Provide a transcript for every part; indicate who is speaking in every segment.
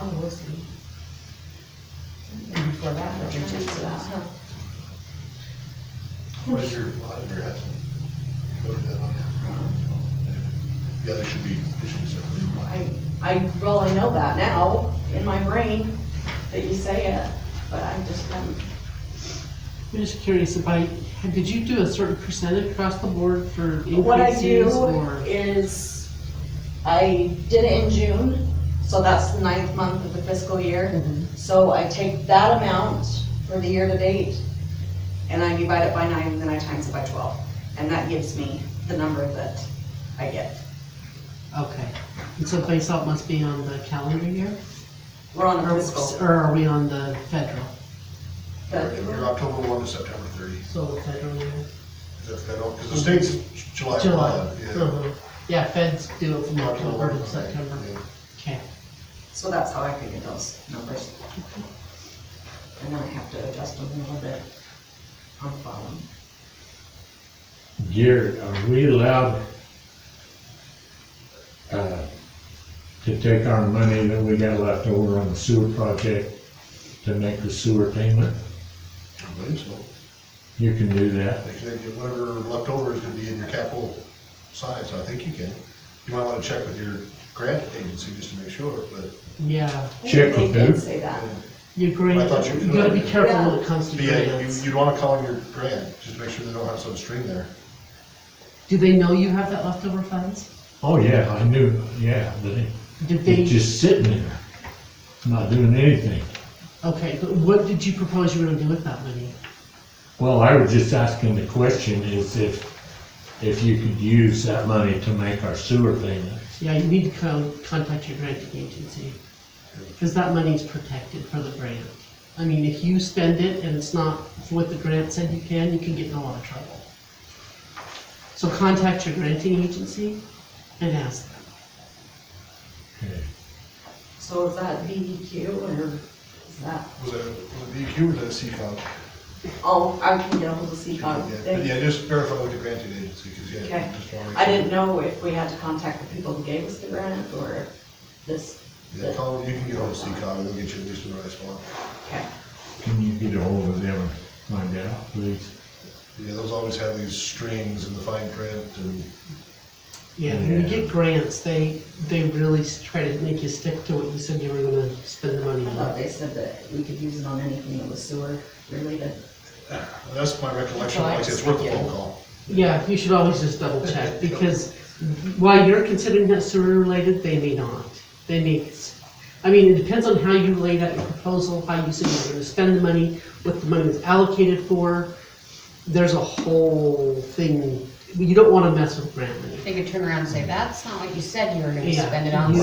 Speaker 1: Oh, we'll see. And before that, we'll reach out to that.
Speaker 2: What is your auditor has noted that on there? Yeah, they should be, they should be separate.
Speaker 1: I, I, well, I know that now in my brain that you say it, but I just haven't.
Speaker 3: I'm just curious about, did you do a certain percentage across the board for
Speaker 1: What I
Speaker 3: increases
Speaker 1: do
Speaker 3: or?
Speaker 1: is, I did it in June, so that's the ninth month of the fiscal year.
Speaker 3: Mhm.
Speaker 1: So I take that amount for the year to date, and I divide it by nine, and then I times it by twelve. And that gives me the number that I get.
Speaker 3: Okay, and so base out must be on the calendar year?
Speaker 1: We're on a
Speaker 3: Or-
Speaker 1: fiscal.
Speaker 3: Or are we on the federal?
Speaker 1: but-
Speaker 2: You're October one to September thirty,
Speaker 3: So the federal year?
Speaker 2: is that federal, because the state's July
Speaker 3: July.
Speaker 2: one, yeah.
Speaker 3: Uh-huh. Yeah, feds do it from
Speaker 2: October
Speaker 3: October to
Speaker 2: one,
Speaker 3: September.
Speaker 2: yeah.
Speaker 3: Okay,
Speaker 1: So that's how I figure those numbers. And then I have to adjust them a little bit on the bottom.
Speaker 4: Dear, are we allowed uh, to take our money that we got left over on the sewer project to make the sewer payment?
Speaker 2: I believe so.
Speaker 4: You can do that.
Speaker 2: They can get whatever left over is gonna be in your capital side, so I think you can. You might wanna check with your grant agency just to make sure, but
Speaker 3: yeah,
Speaker 4: Check
Speaker 1: They
Speaker 4: with
Speaker 1: did
Speaker 4: who?
Speaker 1: say that.
Speaker 3: your grant,
Speaker 2: thought you
Speaker 3: you gotta be
Speaker 2: could.
Speaker 3: careful when
Speaker 1: Yeah.
Speaker 3: it comes to
Speaker 2: but yeah, you,
Speaker 3: grants.
Speaker 2: you'd wanna call in your grant, just to make sure they don't have some string there.
Speaker 3: Do they know you have that leftover funds?
Speaker 4: Oh, yeah, I knew, yeah, but it-
Speaker 3: Did they?
Speaker 4: it's just sitting there, not doing anything.
Speaker 3: Okay, but what did you propose you were gonna do with that money?
Speaker 4: Well, I was just asking the question is if, if you could use that money to make our sewer payment.
Speaker 3: Yeah, you need to co- contact your grant agency, because that money's protected for the grant. I mean, if you spend it and it's not what the grant said you can, you can get in a lot of trouble. So contact your granting agency and ask them.
Speaker 4: Okay.
Speaker 1: So is that VEQ or is that,
Speaker 2: Was it, was it DEQ or the CCOG?
Speaker 1: oh, I can get ahold of
Speaker 2: Yeah,
Speaker 1: CCOG.
Speaker 2: but
Speaker 1: They-
Speaker 2: yeah, just verify with the granting agency, because yeah.
Speaker 1: Oh, Okay.
Speaker 2: just wanna make
Speaker 1: I
Speaker 2: sure.
Speaker 1: didn't know if we had to contact the people who gave us the grant or this,
Speaker 2: Yeah, call, you can get on CCOG, and they'll get you at least the right spot.
Speaker 1: okay.
Speaker 4: Can you get a hold of them and find out, please?
Speaker 2: Yeah, those always have these strings and the fine print and,
Speaker 3: Yeah, when you
Speaker 4: Yeah.
Speaker 3: get grants, they, they really s- try to make you stick to what you said you were gonna spend the money
Speaker 1: I
Speaker 3: on.
Speaker 1: thought they said that we could use it on anything that was sewer related.
Speaker 2: and that's my recollection,
Speaker 1: Well, I
Speaker 2: like, it's
Speaker 1: just-
Speaker 2: worth a
Speaker 1: yeah.
Speaker 2: phone call.
Speaker 3: Yeah, you should always just double check, because while you're considering that sewer related, they may not. They may, I mean, it depends on how you laid out your proposal, how you said you were gonna spend the money, what the money was allocated for. There's a whole thing, you don't wanna mess with grant money.
Speaker 5: They could turn around and say, that's not what you said you were gonna
Speaker 3: Yeah.
Speaker 5: spend it on, so.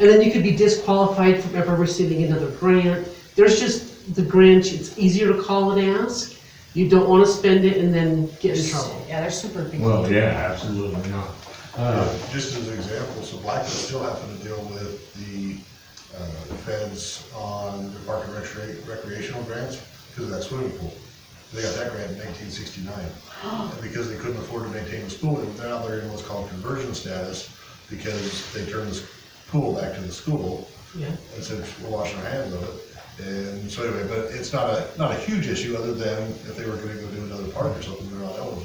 Speaker 3: And then you could be disqualified from ever receiving another grant. There's just the grant, it's easier to call and ask. You don't wanna spend it and then get in trouble.
Speaker 5: Yeah, they're super picky.
Speaker 4: Well, yeah, absolutely not.
Speaker 2: Uh, Just as an example, so Blackwood's still having to deal with the, uh, feds on their park and recre- recreational grants because of that swimming pool. They got that grant in nineteen sixty-nine. And Because they couldn't afford to maintain the school, and now they're in what's called conversion status because they turned this pool back to the school.
Speaker 3: Yeah,
Speaker 2: and said we're washing our hands of it. And so anyway, but it's not a, not a huge issue other than if they were gonna go do another park or something, they're not eligible.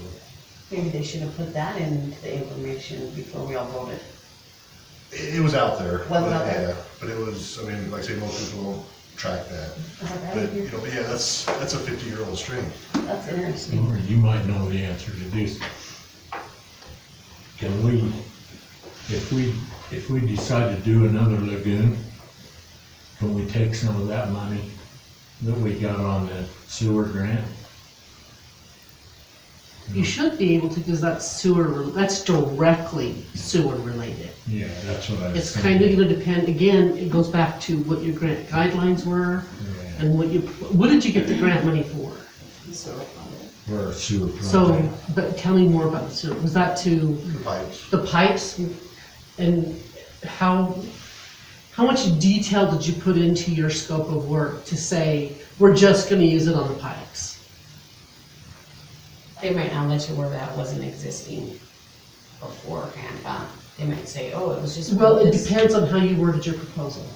Speaker 5: Maybe they should have put that into the information before we all voted.
Speaker 2: It, it was out there.
Speaker 5: Was it
Speaker 2: but,
Speaker 5: out there?
Speaker 2: yeah, But it was, I mean, like I say, most people don't track that.
Speaker 5: I was like, I
Speaker 2: But,
Speaker 5: don't
Speaker 2: you
Speaker 5: hear-
Speaker 2: know, but yeah, that's, that's a fifty-year-old string.
Speaker 5: That's interesting.
Speaker 4: Or you might know the answer to this. Can we, if we, if we decide to do another lagoon, can we take some of that money that we got on the sewer grant?
Speaker 3: you should be able to, cause that's sewer, that's directly sewer related.
Speaker 4: Yeah, that's what I was
Speaker 3: It's
Speaker 4: thinking.
Speaker 3: kind of gonna depend, again, it goes back to what your grant guidelines were
Speaker 4: Yeah,
Speaker 3: and what you, what did you get the grant money for?
Speaker 1: Sewer related.
Speaker 4: For a sewer project.
Speaker 3: So, but tell me more about the sewer, was that to
Speaker 2: The pipes,
Speaker 3: the pipes and how, how much detail did you put into your scope of work to say, we're just gonna use it on the pipes?
Speaker 5: They might not let you where that wasn't existing beforehand, but they might say, oh, it was just. for
Speaker 3: Well, it
Speaker 5: this."
Speaker 3: depends on how you worded your proposal.